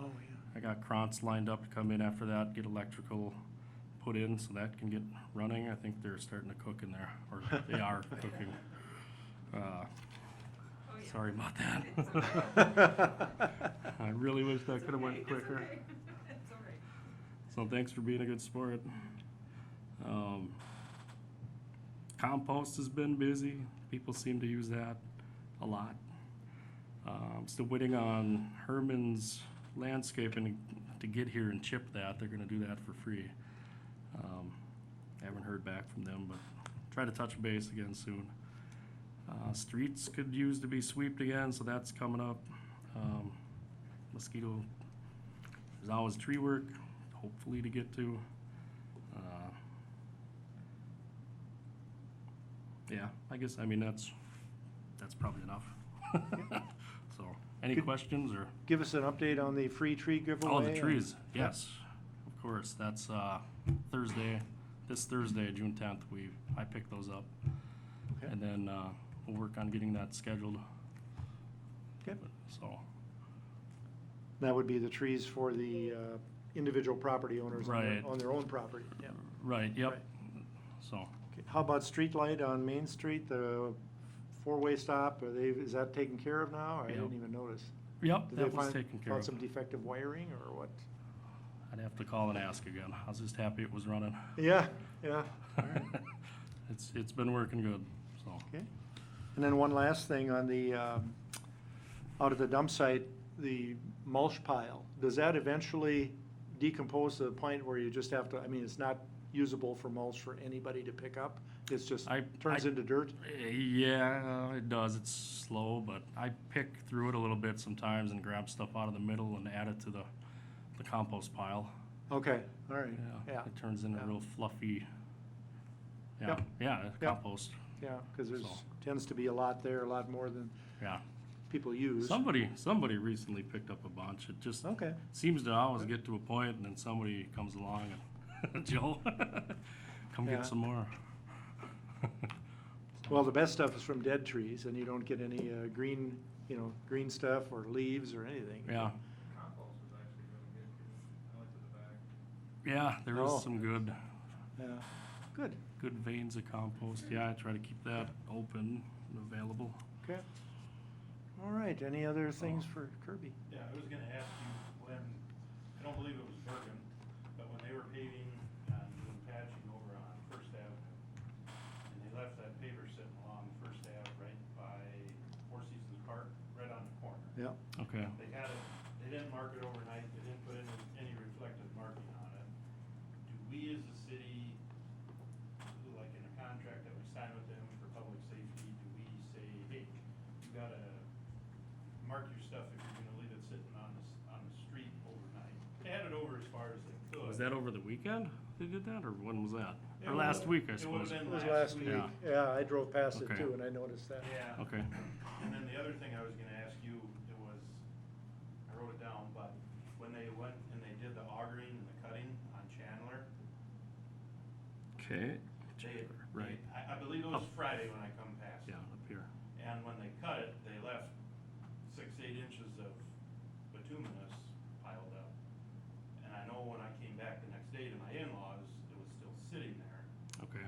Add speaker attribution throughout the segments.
Speaker 1: Oh,
Speaker 2: I got Krantz lined up to come in after that, get electrical put in so that can get running. I think they're starting to cook in there, or they are cooking. Uh,
Speaker 3: Oh, yeah.
Speaker 2: Sorry about
Speaker 3: It's
Speaker 2: that.
Speaker 1: okay.
Speaker 2: I really wish that
Speaker 3: It's
Speaker 2: could have
Speaker 3: okay,
Speaker 2: went
Speaker 3: it's
Speaker 2: quicker.
Speaker 3: okay, It's all right.
Speaker 2: So thanks for being a good sport. Um, compost has been busy. People seem to use that a lot. Um, still waiting on Herman's landscaping to get here and chip that. They're gonna do that for free. Um, I haven't heard back from them, but try to touch base again soon. Uh, streets could use to be swept again, so that's coming up. Um, mosquito there's always tree work, hopefully to get to. Uh, Yeah, I guess, I mean, that's, that's probably enough. So, any
Speaker 1: Good.
Speaker 2: questions or?
Speaker 1: Give us an update on the free tree giveaway.
Speaker 2: Oh, the
Speaker 1: and-
Speaker 2: trees, yes, of course, that's, uh, Thursday, this Thursday, June tenth, we, I picked those up.
Speaker 1: Okay.
Speaker 2: And then, uh, we'll work on getting that scheduled,
Speaker 1: Okay.
Speaker 2: so,
Speaker 1: That would be the trees for the uh, individual property owners on
Speaker 2: Right.
Speaker 1: their- on their own property. Yeah.
Speaker 2: right, yep, so.
Speaker 1: Okay, How about street light on Main Street, the four-way stop, are they, is that taken care of now? I didn't
Speaker 2: Yeah.
Speaker 1: even notice.
Speaker 2: Yep,
Speaker 1: Did they
Speaker 2: that was
Speaker 1: find-
Speaker 2: taken care
Speaker 1: found
Speaker 2: of.
Speaker 1: some defective wiring or what?
Speaker 2: I'd have to call and ask again. I was just happy it was running.
Speaker 1: Yeah, yeah. all right.
Speaker 2: It's, it's been working good, so.
Speaker 1: Okay. And then one last thing on the, um, out at the dump site, the mulch pile, does that eventually decompose to the point where you just have to, I mean, it's not usable for mulch for anybody to pick up? It's just,
Speaker 2: I-
Speaker 1: turns
Speaker 2: I-
Speaker 1: into dirt?
Speaker 2: Eh, Yeah, it does. It's slow, but I pick through it a little bit sometimes and grab stuff out of the middle and add it to the, the compost pile.
Speaker 1: Okay, all right,
Speaker 2: Yeah,
Speaker 1: yeah,
Speaker 2: it turns into
Speaker 1: yeah.
Speaker 2: real fluffy. Yeah,
Speaker 1: Yep.
Speaker 2: yeah,
Speaker 1: Yep.
Speaker 2: compost,
Speaker 1: yeah, because there's,
Speaker 2: So.
Speaker 1: tends to be a lot there, a lot more than
Speaker 2: yeah.
Speaker 1: people use.
Speaker 2: Somebody, somebody recently picked up a bunch. It just
Speaker 1: Okay,
Speaker 2: seems to always get to a point and then somebody comes along and, Joe, come
Speaker 1: Yeah.
Speaker 2: get some more.
Speaker 1: well, the best stuff is from dead trees, and you don't get any uh, green, you know, green stuff or leaves or anything.
Speaker 2: Yeah.
Speaker 4: compost was actually really good, 'cause I went to the back,
Speaker 2: Yeah, there
Speaker 1: Oh.
Speaker 2: is some good,
Speaker 1: Yeah, good,
Speaker 2: good veins of compost. Yeah, I try to keep that open and available.
Speaker 1: okay. All right, any other things for Kirby?
Speaker 4: Yeah, I was gonna ask you when, I don't believe it was Bergen, but when they were paving and doing patching over on First Avenue, and they left that paver sitting along First Ave right by Four Seasons Park, right on the corner.
Speaker 1: Yeah,
Speaker 2: Okay,
Speaker 4: They had it, they didn't mark it overnight, they didn't put any, any reflective marking on it. Do we as a city, like in a contract that we sign with them for public safety, do we say, hey, you gotta mark your stuff if you're gonna leave it sitting on the, s- on the street overnight? They had it over as far as they could.
Speaker 2: was that over the weekend they did that, or when was that?
Speaker 4: It
Speaker 2: Or
Speaker 4: would've-
Speaker 2: last week, I
Speaker 4: it would've
Speaker 2: suppose?
Speaker 4: been
Speaker 1: it was last week,
Speaker 2: Yeah.
Speaker 1: yeah, I drove past it
Speaker 2: Okay.
Speaker 1: too, and I noticed that.
Speaker 4: Yeah.
Speaker 2: Okay,
Speaker 4: And then the other thing I was gonna ask you, it was, I wrote it down, but when they went and they did the augering and the cutting on Chandler,
Speaker 2: okay,
Speaker 4: they,
Speaker 2: right. Oh.
Speaker 4: I, I believe it was Friday when I come past.
Speaker 2: yeah, up here.
Speaker 4: And when they cut it, they left six, eight inches of bituminous piled up. And I know when I came back the next day to my in-laws, it was still sitting there.
Speaker 2: Okay,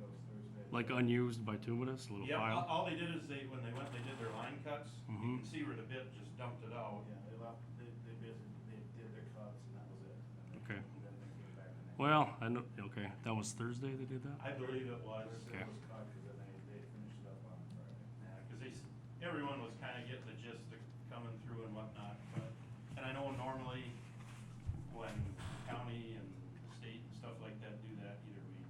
Speaker 4: That was Thursday.
Speaker 2: like unused bituminous, a little
Speaker 4: Yeah, all,
Speaker 2: pile?
Speaker 4: all they did is they, when they went, they did their line cuts, you
Speaker 2: Mhm.
Speaker 4: can see where the bit just dumped it out.
Speaker 5: Yeah, they left, they, they basically, they did their cuts and that was it. And then-
Speaker 2: Okay.
Speaker 5: and Then they came back and they.
Speaker 2: Well, I know, okay, that was Thursday they did that?
Speaker 4: I believe it was,
Speaker 2: Okay.
Speaker 5: It was cut, cause then they, they finished it up on Friday.
Speaker 4: yeah, cause they, s- everyone was kinda getting the gist of coming through and whatnot, but, and I know normally when county and state and stuff like that do that, either we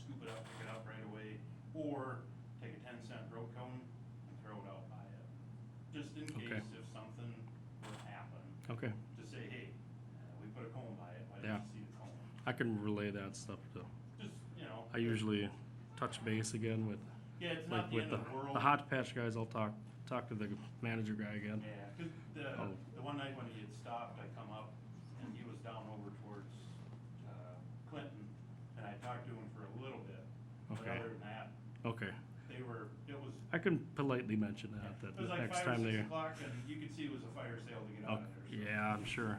Speaker 4: scoop it up, pick it up right away, or take a ten cent road cone and throw it out by it. Just in
Speaker 2: Okay.
Speaker 4: case if something were to happen,
Speaker 2: Okay,
Speaker 4: to say, hey, uh, we put a cone by it, why
Speaker 2: Yeah.
Speaker 4: didn't you see the cone?
Speaker 2: I can relay that stuff to,
Speaker 4: Just, you know,
Speaker 2: I usually touch base again with,
Speaker 4: yeah, it's not
Speaker 2: like
Speaker 4: the
Speaker 2: with
Speaker 4: end
Speaker 2: the,
Speaker 4: of the world.
Speaker 2: the hot patch guys, I'll talk, talk to the manager guy again.
Speaker 4: Yeah, 'cause
Speaker 2: Oh.
Speaker 4: the, the one night when he had stopped, I come up and he was down over towards, uh, Clinton, and I talked to him for a little bit. But
Speaker 2: Okay.
Speaker 4: other than that,
Speaker 2: Okay.
Speaker 4: they were, it was,
Speaker 2: I can politely mention that,
Speaker 4: it
Speaker 2: that
Speaker 4: was
Speaker 2: the
Speaker 4: like
Speaker 2: next
Speaker 4: five or
Speaker 2: time they.
Speaker 4: six o'clock and you could see it was a fire sale to get
Speaker 2: Oh,
Speaker 4: out of there. so-
Speaker 2: Yeah, I'm sure.